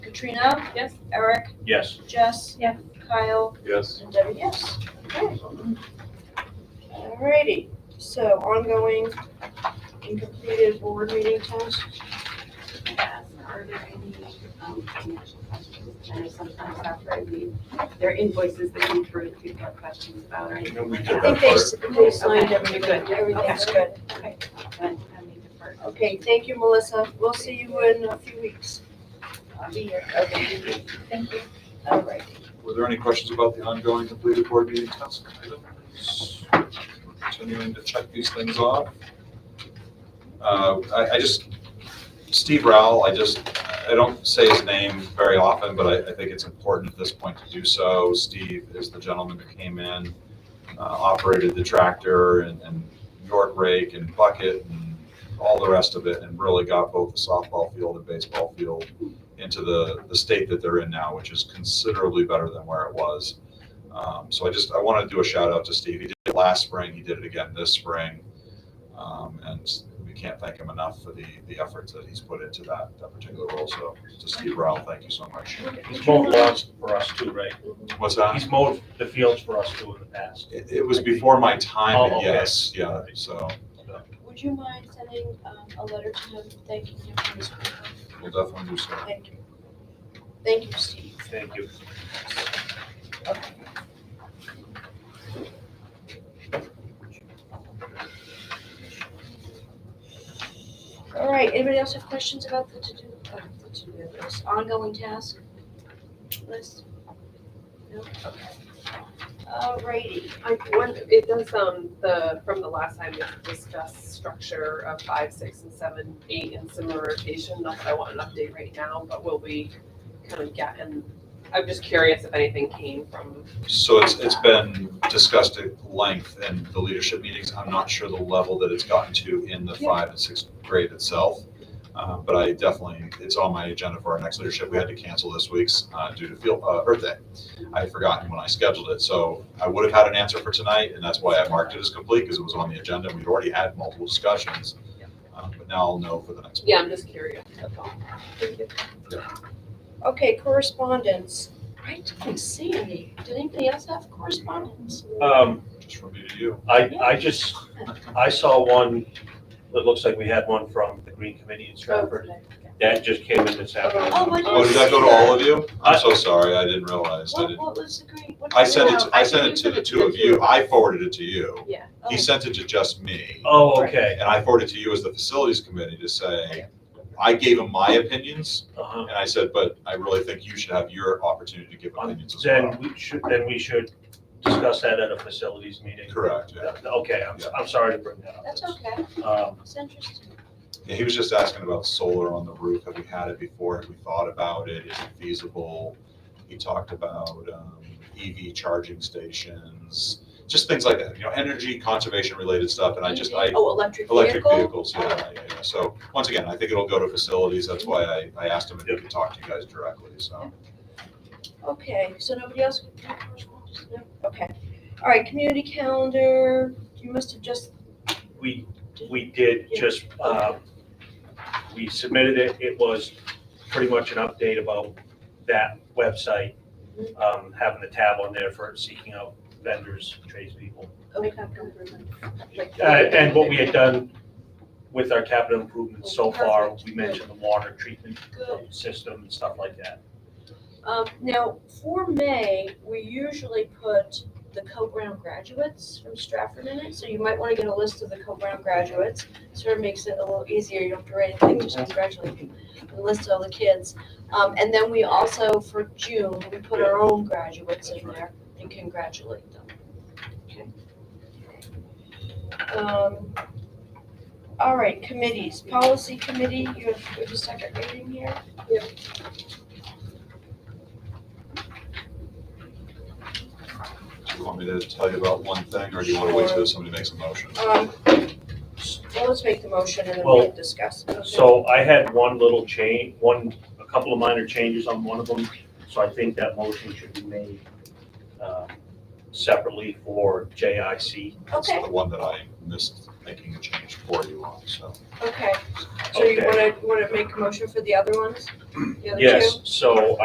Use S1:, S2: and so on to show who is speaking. S1: Katrina? Yes. Eric?
S2: Yes.
S1: Jess?
S3: Yeah.
S1: Kyle?
S2: Yes.
S1: And Debbie, yes. Okay. Alrighty, so ongoing and completed board meeting tasks.
S4: Are there any um, financial questions? I know sometimes after I leave, there are invoices that come through that people have questions about or anything.
S2: No, we did
S1: I
S2: that
S1: think they,
S2: part.
S1: s- they signed
S4: Okay,
S1: everything,
S4: good.
S1: everything's good.
S4: Okay. Then I may defer.
S1: Okay, thank you, Melissa. We'll see you in a few weeks. I'll be here. Okay.
S3: Thank you.
S1: Alright.
S5: Were there any questions about the ongoing completed board meeting task items? Continuing to check these things off. Uh, I, I just, Steve Rowell, I just, I don't say his name very often, but I, I think it's important at this point to do so. Steve is the gentleman that came in, uh, operated the tractor and, and York rake and bucket and all the rest of it, and really got both the softball field and baseball field into the, the state that they're in now, which is considerably better than where it was. Um, so I just, I want to do a shout out to Steve. He did it last spring, he did it again this spring. Um, and we can't thank him enough for the, the efforts that he's put into that, that particular role. So to Steve Rowell, thank you so much.
S2: He's mowed lawns for us too, right?
S5: What's that?
S2: He's mowed the fields for us too in the past.
S5: It, it was before my
S2: Oh,
S5: time, but
S2: okay.
S5: yes, yeah, so
S1: Would you mind sending um, a letter to him thanking him for his work?
S5: we'll definitely do so.
S1: Thank you. Thank you, Steve.
S2: Thank you.
S1: All right, anybody else have questions about the to-do, uh, the to-do list, ongoing task list? No? Okay. All righty.
S6: I wonder, it does, um, the, from the last time we discussed structure of five, six, and seven, eight, and similar rotation, not that I want an update right now, but will we kind of get, and I'm just curious if anything came from,
S5: So it's, it's been discussed at length in the leadership meetings. I'm not sure the level that it's gotten to in the five and sixth grade itself. Uh, But I definitely, it's on my agenda for our next leadership. We had to cancel this week's uh, due to field, uh, Earth Day. I had forgotten when I scheduled it, so I would have had an answer for tonight, and that's why I marked it as complete, because it was on the agenda. We'd already had multiple discussions. Uh, But now I'll know for the next.
S6: yeah, I'm just curious. that's all.
S1: Okay, correspondence. I didn't see any. Did anybody else have correspondence?
S5: Uh,
S2: Um,
S5: Just from me to you.
S2: I, I just, I saw one, that looks like we had one from the Green Committee in Stratford. That just came in this
S1: Oh, I
S2: afternoon.
S1: didn't
S5: Oh, did that go to all of you?
S2: I-
S5: I'm so sorry. I didn't realize. I
S1: What,
S5: didn't.
S1: what was the green? what-
S5: I sent it, to- I
S4: I
S5: sent it
S4: think
S5: to
S4: you
S5: the
S4: sent it
S5: two
S4: to
S5: of
S4: the
S5: you,
S4: two. Oh.
S5: I forwarded it to you.
S6: Yeah.
S1: Oh,
S5: He sent it to just me,
S2: Oh, okay.
S5: and I forwarded it to you as the facilities committee to say, I gave him my opinions,
S2: Uh-huh.
S5: and I said, but I really think you should have your opportunity to give opinions as well.
S2: Then we should, then we should discuss that at a facilities meeting.
S5: Correct, yeah.
S2: Okay, I'm, I'm sorry to bring that up.
S1: That's okay,
S2: Um,
S1: it's interesting.
S5: Yeah, he was just asking about solar on the roof. Have we had it before? Have we thought about it? Is it feasible? He talked about um, EV charging stations, just things like that, you know, energy conservation related stuff. And I just, I,
S1: Oh, electric vehicle?
S5: Electric vehicles, yeah, yeah, yeah. So, once again, I think it'll go to facilities, that's why I, I asked him if he could talk to you guys directly, so.
S1: Okay, so nobody else? can do correspondence? No? Okay, all right, community calendar, you must have just,
S2: we, we did just, um, we submitted it, it was pretty much an update about that website, um, having the tab on there for seeking out vendors, tradespeople.
S1: okay.
S2: Uh, and what we had done with our capital improvements so far, we mentioned the water treatment
S1: Good.
S2: system and stuff like that.
S1: Um, now, for May, we usually put the Co-Brown graduates from Stratford in it, so you might wanna get a list of the Co-Brown graduates. Sort of makes it a little easier, you don't have to write anything, just congratulate them, and list all the kids. Um, and then we also, for June, we put our own graduates in there and congratulate them. Okay. Um, all right, committees, policy committee, you have, you have a second reading here?
S5: Do you want me to tell you about one thing, or do you want to wait till somebody makes a motion?
S1: Um, well, let's make the motion and then
S2: Well,
S1: we'll discuss.
S2: So I had one little change, one, a couple of minor changes on one of them, so I think that motion should be made, um, separately for JIC.
S5: That's
S1: Okay.
S5: the one that I missed making a change for you on, so.
S1: Okay, so you
S2: Okay.
S1: wanna, wanna make a motion for the other ones? The other two?
S2: Yes, so